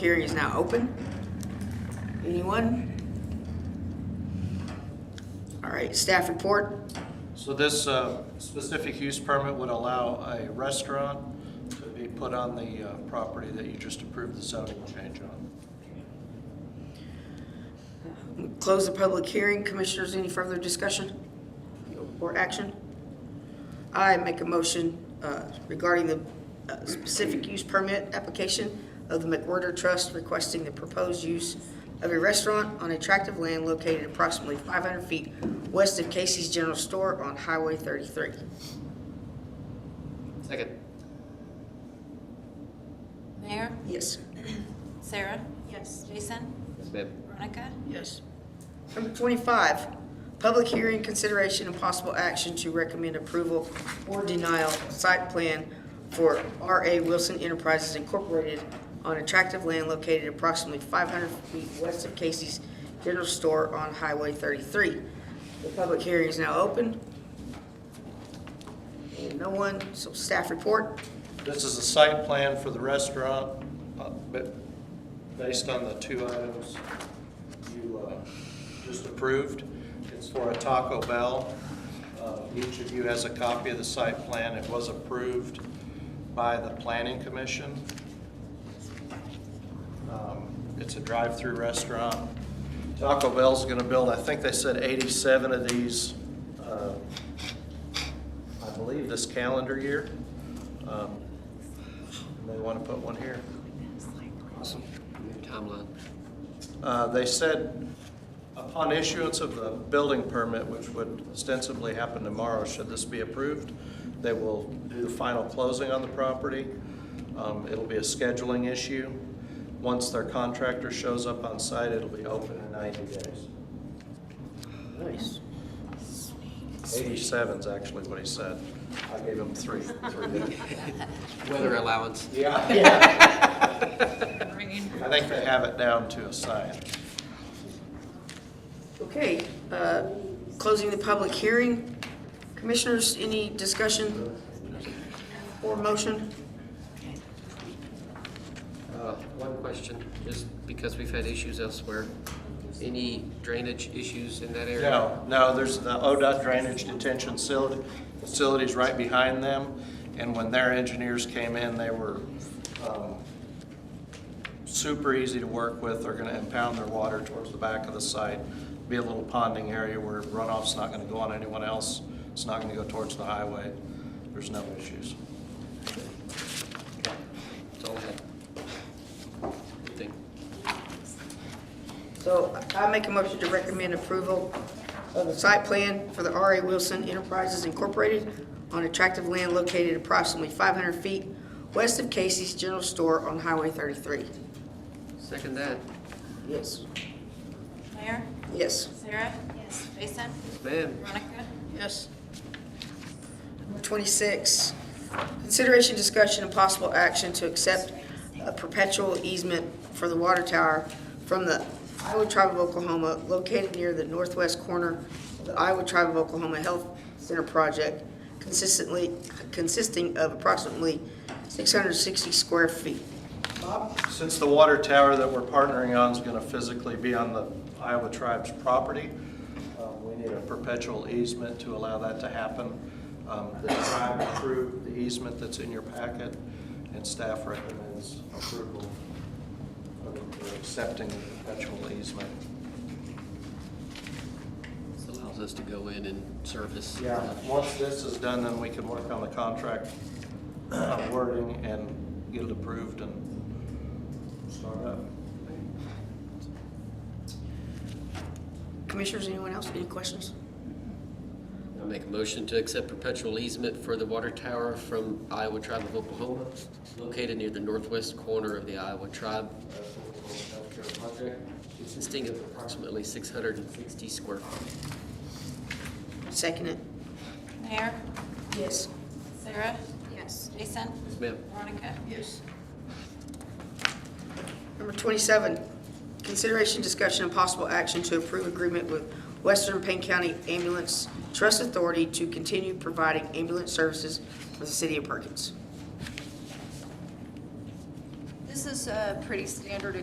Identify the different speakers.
Speaker 1: Hearing is now open. Anyone? All right, staff report.
Speaker 2: So this uh, specific use permit would allow a restaurant to be put on the uh, property that you just approved the zoning change on.
Speaker 1: Close the public hearing. Commissioners, any further discussion or action? I make a motion uh, regarding the uh, specific use permit application of the McWhorter Trust requesting the proposed use of a restaurant on a tract of land located approximately 500 feet west of Casey's General Store on Highway 33.
Speaker 3: Second.
Speaker 4: Mayor,
Speaker 1: Yes.
Speaker 4: Sarah? Yes. Jason,
Speaker 3: Yes, ma'am.
Speaker 4: Veronica?
Speaker 1: Yes. Number 25, public hearing, consideration, and possible action to recommend approval or denial of site plan for R.A. Wilson Enterprises Incorporated on attractive land located approximately 500 feet west of Casey's General Store on Highway 33. The public hearing is now open. And no one, so staff report.
Speaker 2: This is a site plan for the restaurant, uh, but based on the two items you uh, just approved. It's for a Taco Bell. Uh, Each of you has a copy of the site plan. It was approved by the planning commission. Um, It's a drive-through restaurant. Taco Bell's gonna build, I think they said 87 of these uh, I believe, this calendar year. Um, and They want to put one here.
Speaker 3: Awesome. Your timeline.
Speaker 2: Uh, They said upon issuance of the building permit, which would ostensibly happen tomorrow, should this be approved, they will do the final closing on the property. Um, It'll be a scheduling issue. Once their contractor shows up on site, it'll be open in 90 days.
Speaker 1: Nice.
Speaker 2: 87 is actually what he said. I gave him three. three.
Speaker 3: Weather allowance.
Speaker 2: Yeah. I think they have it down to a science.
Speaker 1: Okay, uh, closing the public hearing. Commissioners, any discussion or motion?
Speaker 3: Uh, One question, just because we've had issues elsewhere, any drainage issues in that area?
Speaker 2: No, no, there's the ODOT drainage detention facility, facilities right behind them. And when their engineers came in, they were, um, super easy to work with. They're gonna impound their water towards the back of the site. Be a little ponding area where runoff's not gonna go on anyone else. It's not gonna go towards the highway. There's no issues.
Speaker 3: That's all I had. Good thing.
Speaker 1: So I make a motion to recommend approval of the site plan for the R.A. Wilson Enterprises Incorporated on attractive land located approximately 500 feet west of Casey's General Store on Highway 33.
Speaker 3: Second that.
Speaker 1: Yes.
Speaker 4: Mayor,
Speaker 1: Yes.
Speaker 4: Sarah? Yes. Jason,
Speaker 3: Yes, ma'am.
Speaker 4: Veronica?
Speaker 1: Yes. Number 26, consideration, discussion, and possible action to accept a perpetual easement for the water tower from the Iowa Tribe of Oklahoma located near the northwest corner of the Iowa Tribe of Oklahoma Health Center project consistently, consisting of approximately 660 square feet.
Speaker 2: Since the water tower that we're partnering on is going to physically be on the Iowa tribe's property, um, we need a perpetual easement to allow that to happen. Um, The tribe approved the easement that's in your packet, and staff recommends approval of accepting the perpetual easement.
Speaker 3: This allows us to go in and service.
Speaker 2: Yeah, once this is done, then we can work on the contract uh, wording and get it approved and start up.
Speaker 1: Commissioners, anyone else, any questions?
Speaker 3: I make a motion to accept perpetual easement for the water tower from Iowa Tribe of Oklahoma, located near the northwest corner of the Iowa Tribe of Oklahoma Healthcare Project, consisting of approximately 660 square feet.
Speaker 1: Second it.
Speaker 4: Mayor,
Speaker 1: Yes.
Speaker 4: Sarah? Yes. Jason,
Speaker 3: Yes, ma'am.
Speaker 4: Veronica?
Speaker 1: Yes. Number 27, consideration, discussion, and possible action to approve agreement with Western Payne County Ambulance Trust Authority to continue providing ambulance services for the city of Perkins.
Speaker 5: This is is uh, pretty standard